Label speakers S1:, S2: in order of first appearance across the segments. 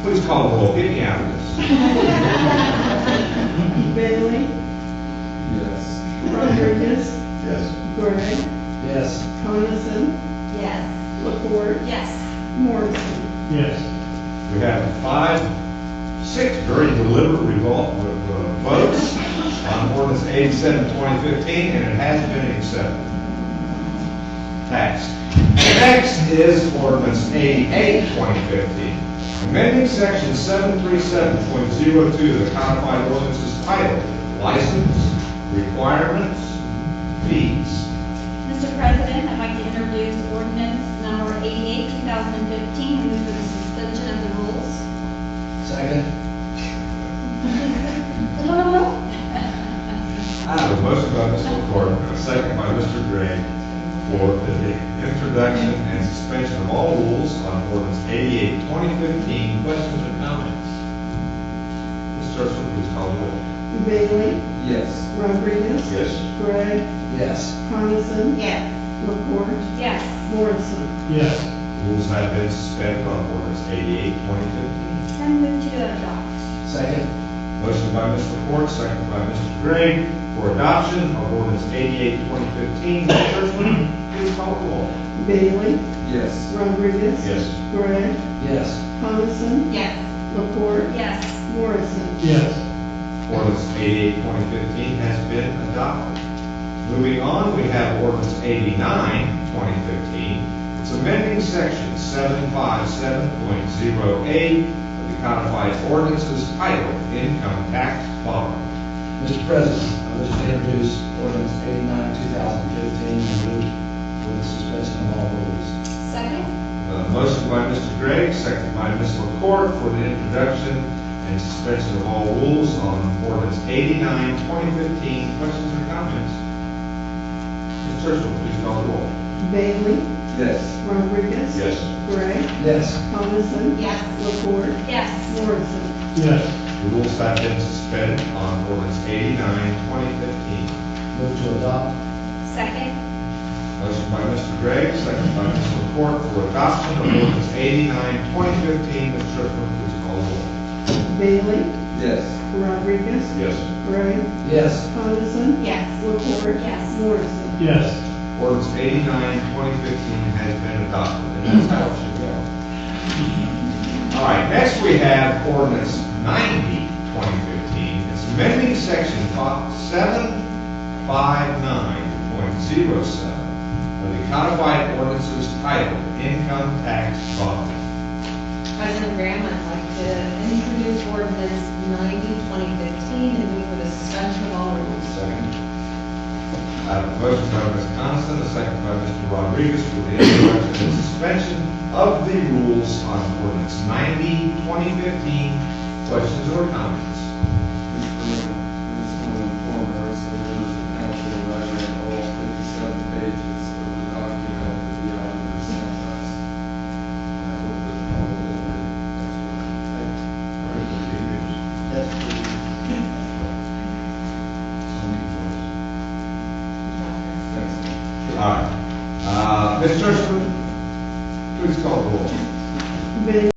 S1: Please call the roll. Get me out of this.
S2: Bailey,
S3: Yes.
S2: Rodriguez,
S3: Yes.
S2: Gray,
S3: Yes.
S2: Coniston,
S4: Yes.
S2: Lepore,
S4: Yes.
S2: Morrison.
S3: Yes.
S1: We have five, six very deliberate revolt, uh, votes on ordinance 87, 2015, and it has been accepted. Next. Next is ordinance 88, 2015, amending section 737.02 of the codified ordinances titled License Requirements Fees.
S4: Mr. President, I'd like to introduce ordinance number 88, 2015, and move for the suspension of the rules.
S3: Second.
S1: I have a motion by Mr. McCord, and a second by Mr. Gray for the introduction and suspension of all rules on ordinance 88, 2015. Questions or comments? Ms. Churchman, please call the roll.
S2: Bailey,
S3: Yes.
S2: Rodriguez,
S1: Yes.
S2: Gray,
S3: Yes.
S2: Coniston,
S4: Yes.
S2: Lepore,
S4: Yes.
S2: Morrison.
S3: Yes.
S1: Rules have been suspended on ordinance 88, 2015.
S4: Then move to adopt.
S3: Second.
S1: Motion by Mr. McCord, second by Mr. Gray for adoption of ordinance 88, 2015. Ms. Churchman, please call the roll.
S2: Bailey,
S3: Yes.
S2: Rodriguez,
S1: Yes.
S2: Gray,
S3: Yes.
S2: Coniston,
S4: Yes.
S2: Lepore,
S4: Yes.
S2: Morrison.
S3: Yes.
S1: Ordinance 88, 2015 has been adopted. Moving on, we have ordinance 89, 2015. It's amending section 757.08 of the codified ordinances titled Income Tax Bond.
S3: Mr. President, I wish to introduce ordinance eighty-nine, two thousand fifteen, and move for the suspension of all rules.
S4: Second?
S1: Uh, Motion by Mr. Gregg, second by Ms. LaCourt for the introduction and suspension of all rules on ordinance 89, 2015. Questions or comments? Ms. Churchman, please call the roll.
S2: Bailey,
S3: Yes.
S2: Rodriguez, Gray,
S3: Yes.
S2: Coniston,
S4: Yes.
S2: Lepore,
S4: Yes.
S2: Morrison.
S3: Yes.
S1: The Rules have been suspended on ordinance 89, 2015.
S3: Move to adopt.
S4: Second?
S1: Motion by Mr. Gregg, second by Ms. LaPorte for adoption of ordinance 89, 2015. Ms. Churchman, please call the roll.
S2: Bailey,
S3: Yes.
S2: Rodriguez,
S1: Yes.
S2: Gray,
S3: Yes.
S2: Coniston,
S4: Yes.
S2: Lepore,
S4: Yes.
S2: Morrison.
S5: Yes,
S1: Ordinance 89, 2015 has been adopted, and that's how it should go. All right, next we have ordinance 90, 2015. It's amending section fi- 759.07 of the codified ordinances titled Income Tax Bond.
S6: President Graham, I'd like to introduce ordinance 90, 2015, and move for the suspension of all rules.
S1: Second. I have a motion by Ms. Coniston, a second by Mr. Rodriguez for the introduction and suspension of the rules on ordinance 90, 2015. Questions or comments?
S7: This will inform us of the rules of council writing all fifty-seven pages of the document that the auditor sent us. I hope that all will be. Thanks.
S1: All right. Uh, Ms. Churchman, please call the roll.
S2: Bailey,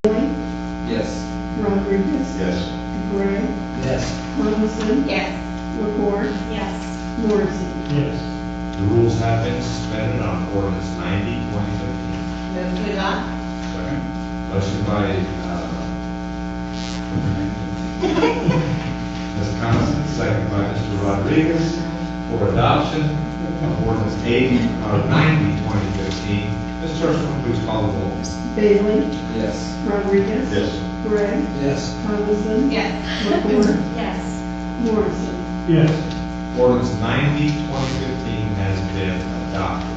S7: Yes.
S2: Rodriguez,
S1: Yes.
S2: Gray,
S3: Yes.
S2: Coniston,
S4: Yes.
S2: Lepore,
S4: Yes.
S2: Morrison.
S5: yes,
S1: The rules have been suspended on ordinance 90, 2015.
S6: Move to adopt?
S1: Motion by, uh, Ms. Coniston, second by Mr. Rodriguez for adoption of ordinance uh, 80, or 90, 2015. Ms. Churchman, please call the roll.
S2: Bailey,
S7: Yes.
S2: Rodriguez, Gray,
S3: Yes.
S2: Coniston,
S4: Yes.
S2: Lepore,
S4: Yes.
S2: Morrison.
S5: yes,
S1: Ordinance 90, 2015 has been adopted.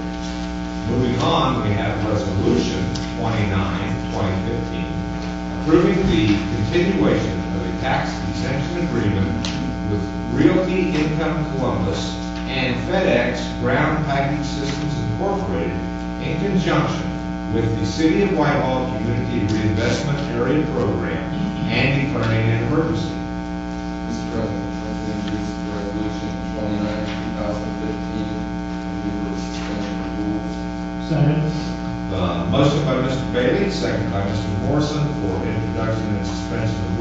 S1: Moving on, we have Resolution 29, 2015, approving the continuation of a tax exemption agreement with Realty Income Columbus and FedEx Ground Package Systems Incorporated in conjunction with the City of Whitehall Community Reinvestment Area Program and declaring an emergency.
S7: Mr. President, I can introduce resolution twenty-nine, two thousand fifteen, and we will suspend the rules.
S5: second,
S1: Uh, Motion by Mr. Bailey, second by Mr. Morrison for introduction and suspension suspension of